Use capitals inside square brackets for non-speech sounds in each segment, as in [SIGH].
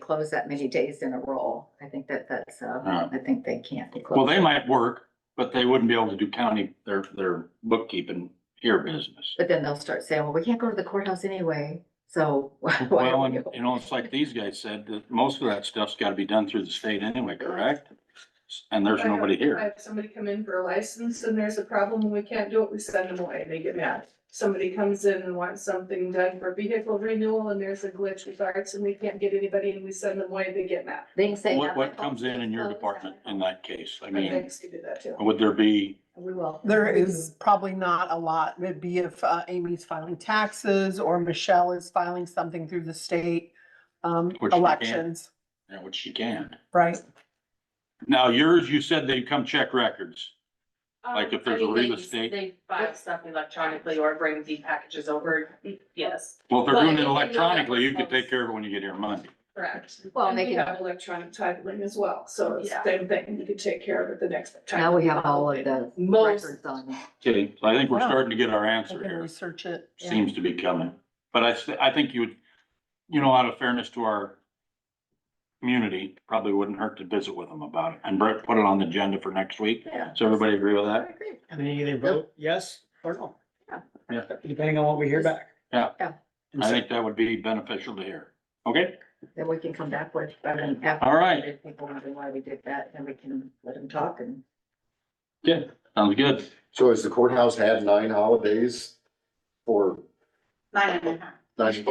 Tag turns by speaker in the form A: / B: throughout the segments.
A: closed that many days in a row. I think that that's, uh,
B: Uh,
A: I think they can't be closed.
B: Well, they might work, but they wouldn't be able to do county, their, their bookkeeping here business.
A: But then they'll start saying, well, we can't go to the courthouse anyway, so [LAUGHS] why why
B: Well,
A: don't
B: and,
A: we?
B: you know, it's like these guys said, that most of that stuff's gotta be done through the state anyway, correct? And there's
C: I have-
B: nobody
C: I
B: here.
C: Have somebody come in for a license and there's a problem and we can't do it, we send them away, they get mad. Somebody comes in and wants something done for vehicle renewal and there's a glitch with ours and we can't get anybody and we send them away, they get mad.
A: They can say.
B: What,
A: "Yeah, my
B: what
A: fault,
B: comes in in your
A: it's closed."
B: department in that case? I
C: I
B: mean, oh.
C: think you do that too.
B: would there be,
A: We will.
D: There is probably not a lot. It'd be if uh, Amy's filing taxes or Michelle is filing something through the state um,
B: Which they can't.
D: elections,
B: you know, which you can.
D: right?
B: Now yours, you said they come check records. Like if
E: Um, I
B: there's a
E: mean, they
B: real
E: just-
B: estate-
E: They file stuff electronically or bring the packages over, yes,
B: Well, if they're
E: Well,
B: doing it
E: if they know that
B: electronically, you can
E: themselves.
B: take care of it when you get here Monday.
E: correct.
A: Well, and
C: And
A: they
C: we
A: can-
C: have electronic titling as well, so it's the
E: Yeah.
C: same thing, you can take care of it the next time.
A: Now we have all of the
E: Most-
A: records on.
B: Okay, so I think we're
D: Yeah.
B: starting to get our
D: I
B: answer
D: can
B: here.
D: research it.
B: seems to be coming. But I, th- I think you would, you know, out of fairness to our community, probably wouldn't hurt to visit with them about it and Brett put it on the agenda for next week.
A: Yeah.
B: Does everybody agree with
A: I
B: that?
A: agree.
F: And then you either vote yes or no.
A: Yeah.
B: Yeah.
F: Depending on what we hear back.
B: Yeah.
A: Yeah.
F: And
B: I
F: so-
B: think that would be beneficial to hear. Okay,
A: Then we can come back with, I mean, after.
B: All right.
A: If people wonder why we did that, then we can let them talk and.
B: sounds good.
G: So has the courthouse had nine holidays for
H: Nine and a half.
G: nine?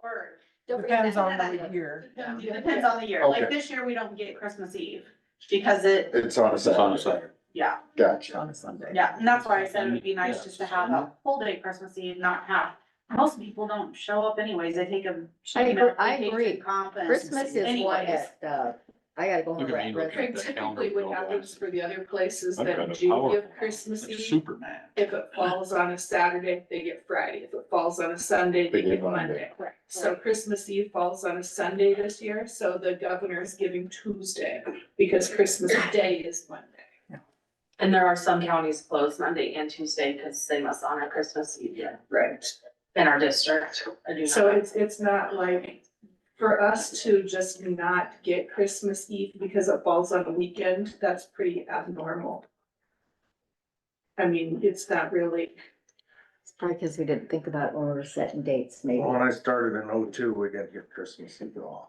H: Or,
D: Depends on the year.
H: it depends on the year, like
G: Okay.
H: this year, we don't get Christmas Eve, because it,
G: It's on a
B: It's on a
G: Saturday.
B: Saturday.
H: yeah,
G: Gotcha.
D: On a Sunday.
H: yeah, and that's why I said it would be
B: Yeah.
H: nice just to have a full day Christmas Eve, not half. Most people don't show up anyways, they take a.
A: I agree- I
H: vacation
A: agree.
H: Comp and.
A: Christmas is one
H: anyways.
A: that, uh, I gotta go. on
B: Look at me
A: record.
B: looking. at that
C: Typically
B: calendar,
C: what
B: Bill,
C: happens for the other places
B: I've got
C: that
B: a
C: do
B: power-
C: give Christmas
B: Like
C: Eve,
B: Superman.
C: if it falls on a Saturday, they get Friday, if it falls on a Sunday, they get Monday.
H: Correct.
C: So Christmas Eve falls on a Sunday this year, so the governor is giving Tuesday because Christmas Day is Monday.
E: And there are some counties closed Monday and Tuesday because they must honor Christmas Eve
C: Right.
E: in our district. I do
C: So
E: not.
C: it's, it's not like, for us to just not get Christmas Eve because it falls on a weekend, that's pretty abnormal. I mean, it's not really,
A: It's probably because we didn't think about it when we were setting dates, maybe.
I: Well, When I started in oh two, we got to get Christmas Eve off.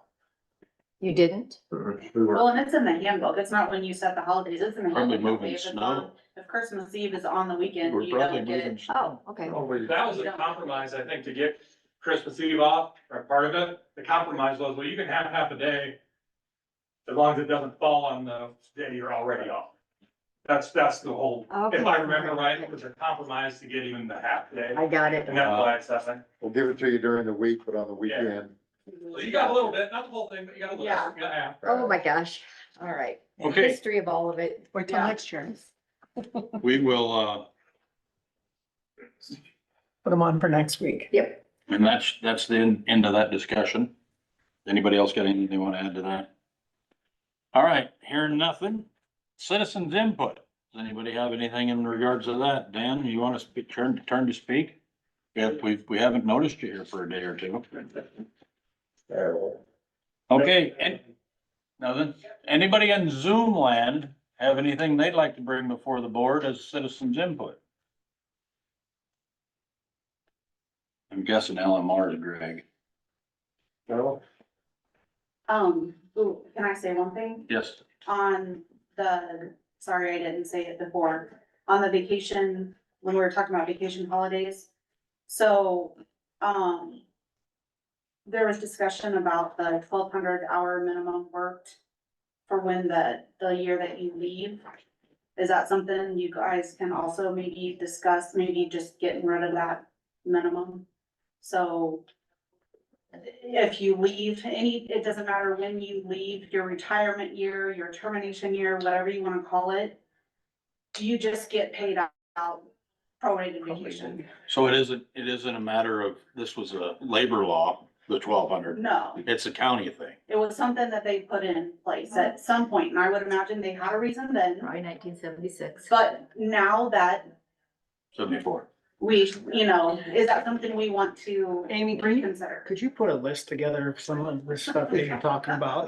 A: You didn't?
G: Mm-hmm.
I: We were,
H: Well, and it's in the handbook, it's not when you set the holidays, it's in the.
B: Probably
H: handbook.
B: moving
H: If it's
B: snow.
H: on- If Christmas Eve is on the weekend,
B: We're
H: you don't
B: probably
H: get it.
B: moving.
A: Oh, okay.
I: probably-
J: That was a compromise, I think, to get Christmas Eve off, or part of it. The compromise was, well, you can have half a day as long as it doesn't fall on the day you're already off. That's, that's the whole,
A: Okay.
J: if I remember right, it was a compromise to get even the half day.
A: I got it.
J: And that's why it's happening.
G: We'll give it to you during the week, but on the weekend.
J: So you got a little bit, not the whole thing, but you got a little,
H: Yeah.
J: you got half.
A: Oh, my gosh. All right.
B: Okay,
A: History of all of it.
D: Wait till
H: Yeah.
D: next year.
B: we will, uh,
D: Put them on for next week.
A: Yep.
B: and that's, that's the en- end of that discussion. Anybody else got anything they want to add to that? All right, hearing nothing. Citizens input. Does anybody have anything in regards to that? Dan, you want to speak, turn, turn to speak? If we, we haven't noticed you here for a day or two. Okay, and, nothing. Anybody in Zoom land have anything they'd like to bring before the board as citizens input? I'm guessing LMR is Greg.
I: No,
H: Um, ooh, can I say one thing?
B: Yes.
H: on the, sorry, I didn't say it before, on the vacation, when we were talking about vacation holidays. So, um, there was discussion about the twelve hundred hour minimum worked for when the, the year that you leave. Is that something you guys can also maybe discuss, maybe just getting rid of that minimum? So if you leave, any, it doesn't matter when you leave, your retirement year, your termination year, whatever you wanna call it. Do you just get paid out prorated vacation?
B: So it isn't, it isn't a matter of, this was a labor law, the twelve hundred,
H: No,
B: it's a county thing.
H: it was something that they put in place at some point, and I would imagine they had a reason then,
A: Probably nineteen seventy-six.
H: but now that
B: Seventy-four.
H: we, you know, is that something we want to
K: Amy, can you-
H: reconsider?
D: Could you put a list together of some of the stuff that you're talking about?